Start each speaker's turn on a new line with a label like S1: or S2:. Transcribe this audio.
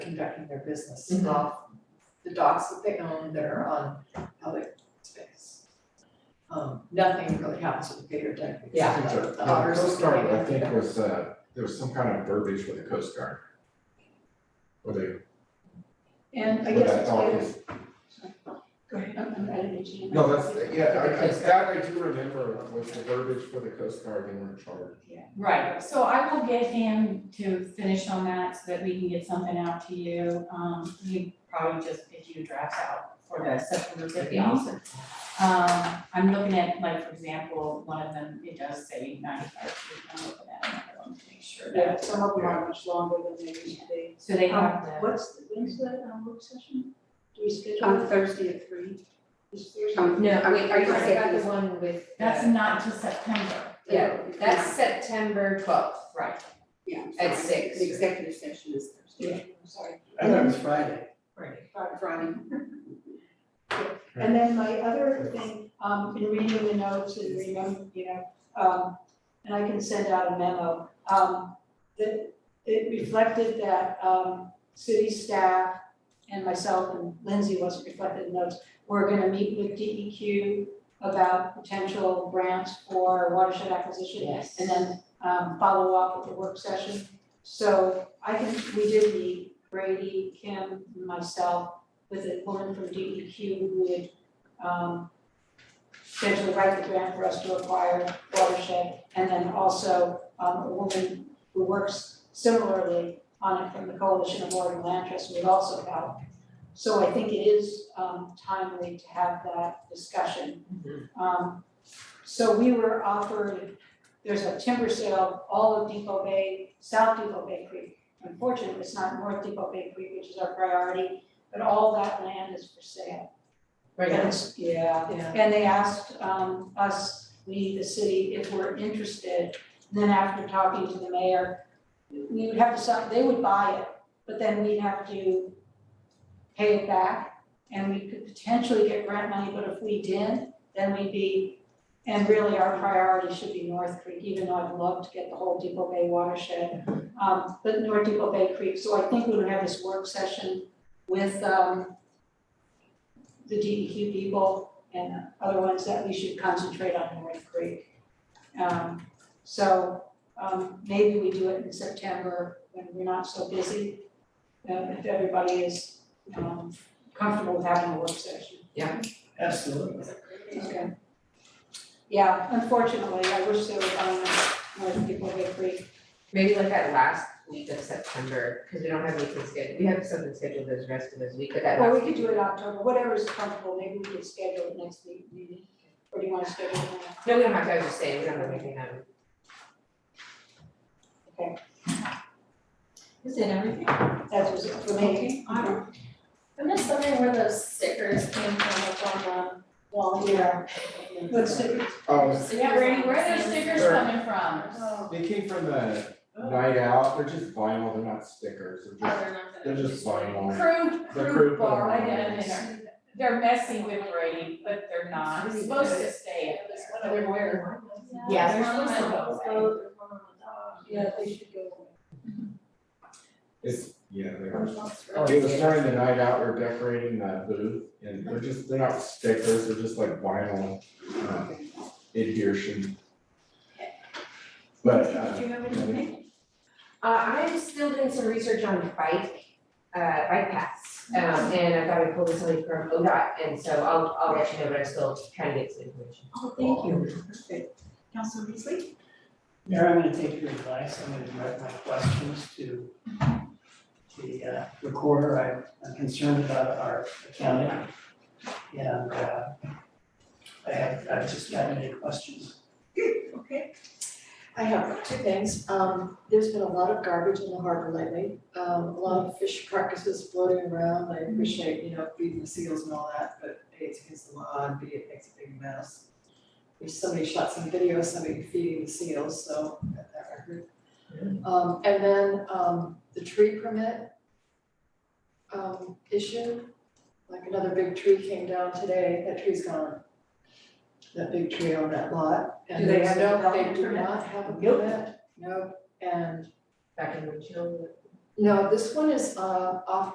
S1: conducting their business off the docks that they own that are on public space. Um, nothing really happens with the Gator Deck. except
S2: Yeah.
S3: I think
S1: The
S3: the-
S1: the
S3: The
S1: otters.
S3: Coast Guard, I think,
S1: Yeah.
S3: was, uh, there was some kind of verbiage for the Coast Guard. Where they,
S4: And I
S3: where
S4: guess
S3: that
S4: it's
S3: dog
S4: later.
S3: is,
S4: Go ahead. I'm adding it to you.
S3: no, that's, yeah, I, I, that I do remember was the verbiage for the Coast Guard in our charter.
S4: Right, so I will get him to finish on that so that we can get something out to you. Um, you probably just get you drafts out for the September fifth meeting. Um, I'm looking at, like, for example, one of them, it does say ninety-five, I'm looking at another one to make sure
S5: Yeah,
S4: that,
S5: uh, some of them are much longer than they used to be.
S4: so they have
S5: Um,
S4: the.
S5: What's, the- when's the um, work session? Do we schedule
S6: On
S5: it
S6: Thursday at three.
S5: this Thursday?
S6: Um,
S2: No,
S6: I'm-
S2: wait, are
S6: I'm
S2: you
S6: sorry,
S2: talking
S6: I
S2: about
S6: was-
S2: the one with? the-
S4: That's not till September,
S6: Yeah,
S2: That's September twelfth
S4: right,
S6: yeah. I'm sorry.
S2: at six.
S6: The executive session is Thursday.
S5: I'm Sorry.
S7: I thought it was Friday.
S4: right.
S6: Friday.
S5: And then my other thing, um, in reading the notes and remember, you know, um, and I can send out a memo, um, that it reflected that, um, city staff and myself and Lindsay wasn't reflected in notes, we're gonna meet with DEQ about potential grants for watershed acquisition
S2: Yes.
S5: and then, um, follow up with the work session. So I can, we did meet Brady, Kim, and myself, with a woman from DEQ who would um potentially write the grant for us to acquire watershed, and then also um a woman who works similarly on it from the Coalition of Water and Land Trust would also help. So I think it is um timely to have that discussion. Um so we were offered, there's a timber sale, all of Depot Bay, South Depot Bay Creek. Unfortunately, it's not North Depot Bay Creek, which is our priority, but all that land is for sale.
S2: Right.
S5: And it's- yeah,
S1: Yeah.
S5: and they asked um us, we, the city, if we're interested. Then after talking to the mayor, we would have to sign, they would buy it, but then we'd have to pay it back. And we could potentially get grant money, but if we didn't, then we'd be, and really our priority should be North Creek, even though I'd love to get the whole Depot Bay watershed. Um, but North Depot Bay Creek, so I think we would have this work session with um the DEQ people and other ones that we should concentrate on North Creek. Um, so, um, maybe we do it in September when we're not so busy, uh, if everybody is, um, comfortable with having a work session.
S7: Absolutely.
S5: Okay. Yeah, unfortunately, I wish there was, um, more people Bay Creek.
S2: Maybe like that last week of September, because we don't have anything scheduled, we have something scheduled this rest of this week, but that
S5: Or we
S2: last
S5: could
S2: week.
S5: do it October, whatever is comfortable, maybe we could schedule it next week, maybe, or do you wanna schedule it now?
S2: No, we don't have to, I was just saying, we don't have anything on.
S5: Okay.
S2: Is it everything?
S5: That was it for me.
S4: I don't-
S8: Uh-huh. I'm just wondering where those stickers came from up on the wall
S5: Yeah. Let's see.
S3: Oh,
S8: Yeah, Brady, where are those
S4: stickers
S3: Sure.
S4: coming from?
S8: Oh.
S3: they came from the night out, they're just vinyl, they're not stickers, they're
S8: Oh,
S3: just,
S8: they're not
S3: they're
S8: gonna.
S3: just vinyl.
S4: Crude,
S3: The
S4: crude
S3: crude
S4: bar, I
S3: bar.
S4: get it, they're, they're messy with Brady, but they're not, It's supposed to stay up there.
S1: Whatever, where.
S4: Yeah,
S8: There's
S4: they're
S8: one
S4: supposed to
S8: on the
S4: go away.
S8: boat, there's one on the dock.
S5: Yeah, they should go.
S3: It's, yeah, they are.
S8: There's one that's
S2: Oh,
S3: It was
S2: yeah.
S3: during the night out, we're decorating the booth, and they're just, they're not stickers, they're just like vinyl, um, adhesion. But, uh,
S5: Do you have anything?
S2: Uh, I'm still doing some research on bike, uh, bike paths, um, and I thought I pulled something from ODOT, and so I'll, I'll let you know, but I'm still trying to get some information.
S5: Oh, thank you. Perfect. Councilor Beasley?
S7: Mayor, I'm gonna take your advice, I'm gonna direct my questions to the uh, recorder, I- I'm concerned about our accounting. And uh, I have, I've just got any questions.
S1: Okay. I have two things. Um, there's been a lot of garbage in the harbor lately. Um, a lot of fish carcasses floating around. I appreciate, you know, feeding the seals and all that, but A, it's against the law and B, it makes a big mess. If somebody shot some video, of somebody feeding the seals, so that that I heard. Um, and then, um, the tree permit um, issue, like another big tree came down today. That tree's gone. That big tree on that lot. and
S5: Do they
S1: there's
S5: have a
S1: no-
S5: development
S1: They do
S5: permit?
S1: not have a
S5: Nope.
S1: permit, no, and
S2: Back in the chill.
S1: No, this one is, uh, off